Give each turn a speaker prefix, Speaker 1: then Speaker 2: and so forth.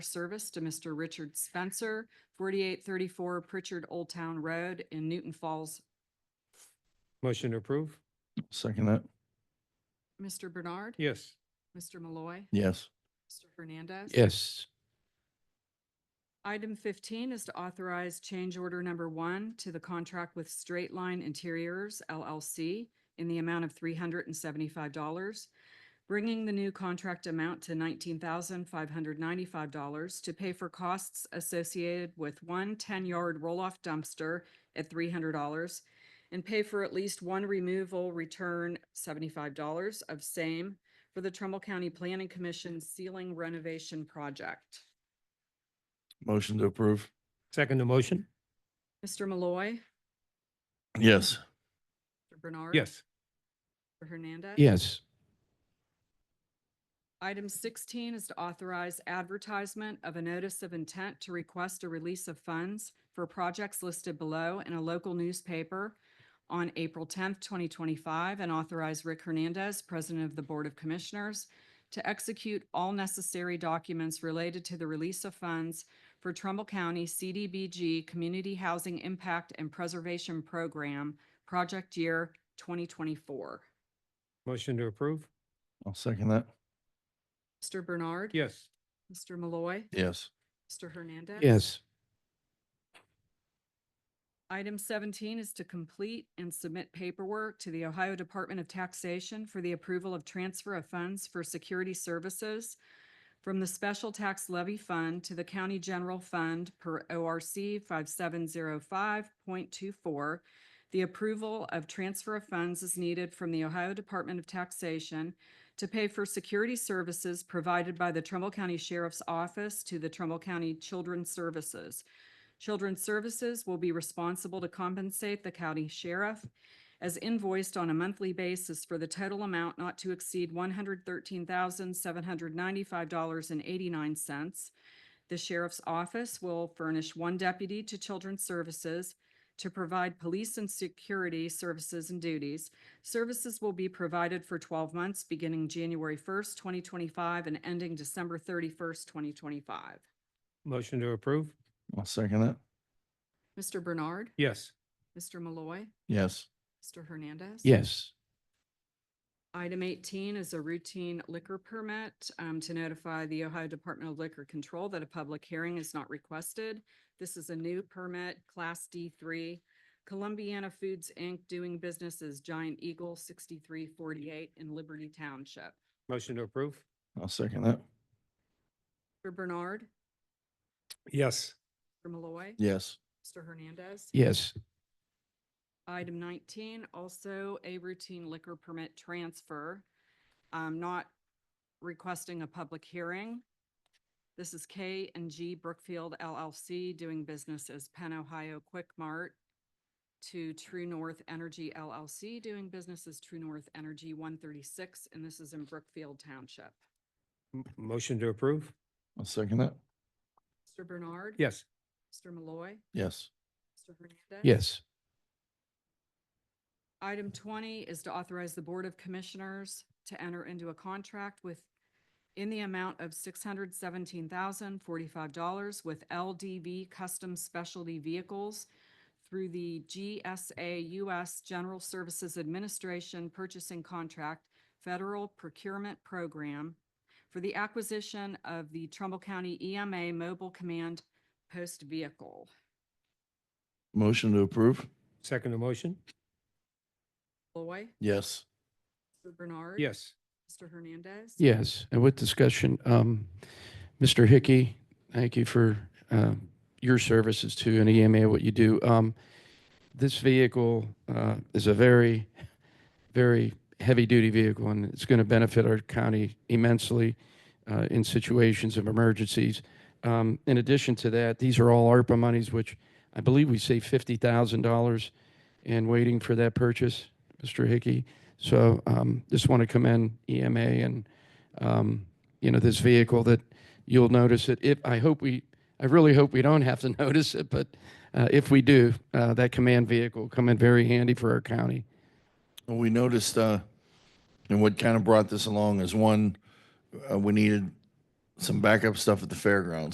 Speaker 1: service to Mr. Richard Spencer, forty-eight thirty-four Pritchard Old Town Road in Newton Falls.
Speaker 2: Motion to approve?
Speaker 3: Second that.
Speaker 1: Mr. Bernard.
Speaker 2: Yes.
Speaker 1: Mr. Malloy.
Speaker 3: Yes.
Speaker 1: Mr. Hernandez.
Speaker 2: Yes.
Speaker 1: Item fifteen is to authorize change order number one to the contract with Straight Line Interiors LLC in the amount of three hundred and seventy-five dollars, bringing the new contract amount to nineteen thousand five hundred ninety-five dollars to pay for costs associated with one 10 yard roll-off dumpster at three hundred dollars and pay for at least one removal return seventy-five dollars of same for the Trumbull County Planning Commission ceiling renovation project.
Speaker 3: Motion to approve.
Speaker 2: Second the motion?
Speaker 1: Mr. Malloy.
Speaker 3: Yes.
Speaker 1: Mr. Bernard.
Speaker 2: Yes.
Speaker 1: Mr. Hernandez.
Speaker 2: Yes.
Speaker 1: Item sixteen is to authorize advertisement of a notice of intent to request a release of funds for projects listed below in a local newspaper on April tenth, twenty twenty-five, and authorize Rick Hernandez, President of the Board of Commissioners, to execute all necessary documents related to the release of funds for Trumbull County CDBG Community Housing Impact and Preservation Program, project year twenty twenty-four.
Speaker 2: Motion to approve?
Speaker 3: I'll second that.
Speaker 1: Mr. Bernard.
Speaker 2: Yes.
Speaker 1: Mr. Malloy.
Speaker 3: Yes.
Speaker 1: Mr. Hernandez.
Speaker 2: Yes.
Speaker 1: Item seventeen is to complete and submit paperwork to the Ohio Department of Taxation for the approval of transfer of funds for security services from the Special Tax Levy Fund to the County General Fund per ORC five seven zero five point two four. The approval of transfer of funds is needed from the Ohio Department of Taxation to pay for security services provided by the Trumbull County Sheriff's Office to the Trumbull County Children's Services. Children's Services will be responsible to compensate the county sheriff as invoiced on a monthly basis for the total amount not to exceed one hundred thirteen thousand, seven hundred ninety-five dollars and eighty-nine cents. The sheriff's office will furnish one deputy to Children's Services to provide police and security services and duties. Services will be provided for twelve months, beginning January first, twenty twenty-five, and ending December thirty-first, twenty twenty-five.
Speaker 2: Motion to approve?
Speaker 3: I'll second that.
Speaker 1: Mr. Bernard.
Speaker 2: Yes.
Speaker 1: Mr. Malloy.
Speaker 3: Yes.
Speaker 1: Mr. Hernandez?
Speaker 2: Yes.
Speaker 1: Item eighteen is a routine liquor permit um, to notify the Ohio Department of Liquor Control that a public hearing is not requested. This is a new permit, Class D three. Columbiana Foods, Inc., doing business as Giant Eagle sixty-three forty-eight in Liberty Township.
Speaker 2: Motion to approve?
Speaker 3: I'll second that.
Speaker 1: Mr. Bernard,
Speaker 2: Yes.
Speaker 1: Mr. Malloy,
Speaker 3: Yes.
Speaker 1: Mr. Hernandez.
Speaker 2: Yes.
Speaker 1: Item nineteen, also a routine liquor permit transfer, um, not requesting a public hearing. This is K and G Brookfield LLC doing business as Penn Ohio Quick Mart to True North Energy LLC doing business as True North Energy one thirty-six, and this is in Brookfield Township.
Speaker 2: Motion to approve?
Speaker 3: I'll second that.
Speaker 1: Mr. Bernard.
Speaker 2: Yes.
Speaker 1: Mr. Malloy.
Speaker 3: Yes.
Speaker 1: Mr. Hernandez.
Speaker 2: Yes.
Speaker 1: Item twenty is to authorize the Board of Commissioners to enter into a contract with, in the amount of six hundred seventeen thousand forty-five dollars with LDV Custom Specialty Vehicles through the GSA US General Services Administration Purchasing Contract Federal Procurement Program for the acquisition of the Trumbull County EMA Mobile Command Post Vehicle.
Speaker 3: Motion to approve.
Speaker 2: Second the motion?
Speaker 1: Loy?
Speaker 3: Yes.
Speaker 1: Mr. Bernard?
Speaker 2: Yes.
Speaker 1: Mr. Hernandez?
Speaker 4: Yes, and with discussion, um, Mr. Hickey, thank you for, uh, your services to an EMA, what you do. Um, this vehicle, uh, is a very, very heavy-duty vehicle, and it's going to benefit our county immensely, uh, in situations of emergencies. Um, in addition to that, these are all ARPA monies, which I believe we saved fifty thousand dollars in waiting for that purchase, Mr. Hickey. So, um, just want to commend EMA and, um, you know, this vehicle that you'll notice it. If, I hope we, I really hope we don't have to notice it, but, uh, if we do, uh, that command vehicle will come in very handy for our county.
Speaker 3: Well, we noticed, uh, and what kind of brought this along is one, uh, we needed some backup stuff at the fairgrounds.